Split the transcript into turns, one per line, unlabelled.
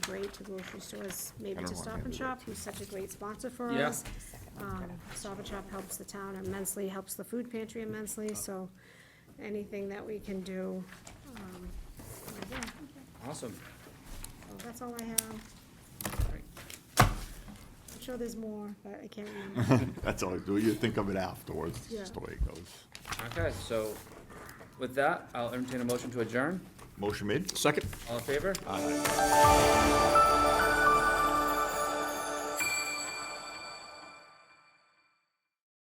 great to grocery stores, maybe
I
to
don't
Stop
want
and
to
Shop, who's such a great sponsor for
Yeah.
us. Um, Stop and Shop helps the town immensely, helps the food pantry immensely, so anything that we can do, um, yeah,
Awesome.
so that's all I have. I'm sure there's more, but I can't remember.
That's all, you think of it afterwards, it's just the
Yeah.
way it goes.
Okay, so with that, I'll entertain a motion to adjourn.
Motion made? Second.
All in favor?